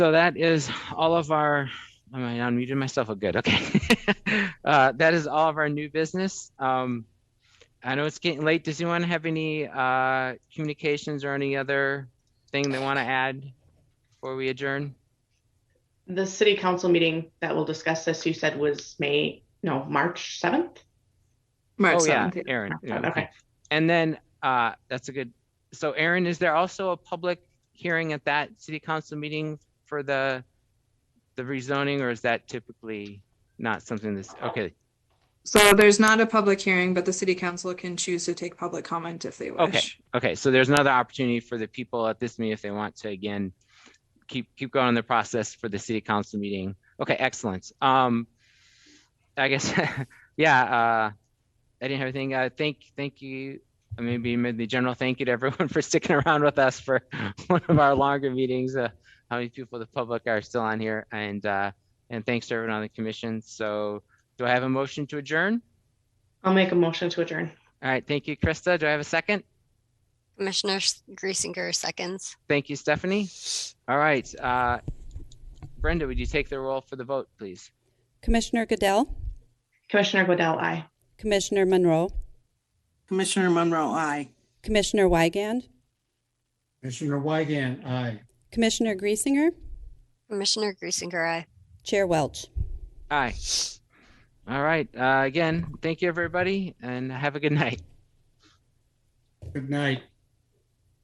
So that is all of our, am I unmuted myself? Oh, good, okay. Uh, that is all of our new business. Um, I know it's getting late. Does anyone have any, uh, communications or any other thing they want to add before we adjourn? The city council meeting that will discuss this, you said was May, no, March seventh? March Oh, yeah, 7th. Aaron. yeah, Okay. And then, uh, that's a good, so Aaron, is there also a public hearing at that city council meeting for the, the rezoning, or is that typically not something that's, okay, So there's not a public hearing, but the city council can choose to take public comment if they wish. okay, so there's another opportunity for the people at this meeting if they want to, again, keep, keep going in the process for the city council meeting. Okay, excellent. Um, I guess, yeah, uh, I didn't have anything, uh, thank, thank you, maybe mid- the general thank you to everyone for sticking around with us for one of our longer meetings, uh, how many people, the public are still on here, and, uh, and thanks to everyone on the commission. So do I have a motion to adjourn? I'll make a motion to adjourn. All right, thank you, Krista. Do I have a second? Commissioner S- Griesinger seconds. Thank you, Stephanie. All right. uh, Brenda, would you take the roll for the vote, please? Commissioner Goodell, Commissioner Goodell, aye. Commissioner Monroe, Commissioner Monroe, aye. Commissioner Wygand, Commissioner Weigand, aye. Commissioner Griesinger, Commissioner Griesinger, aye. Chair Welch. Aye. All right. uh, Again, thank you, everybody, and have a good night. Good night.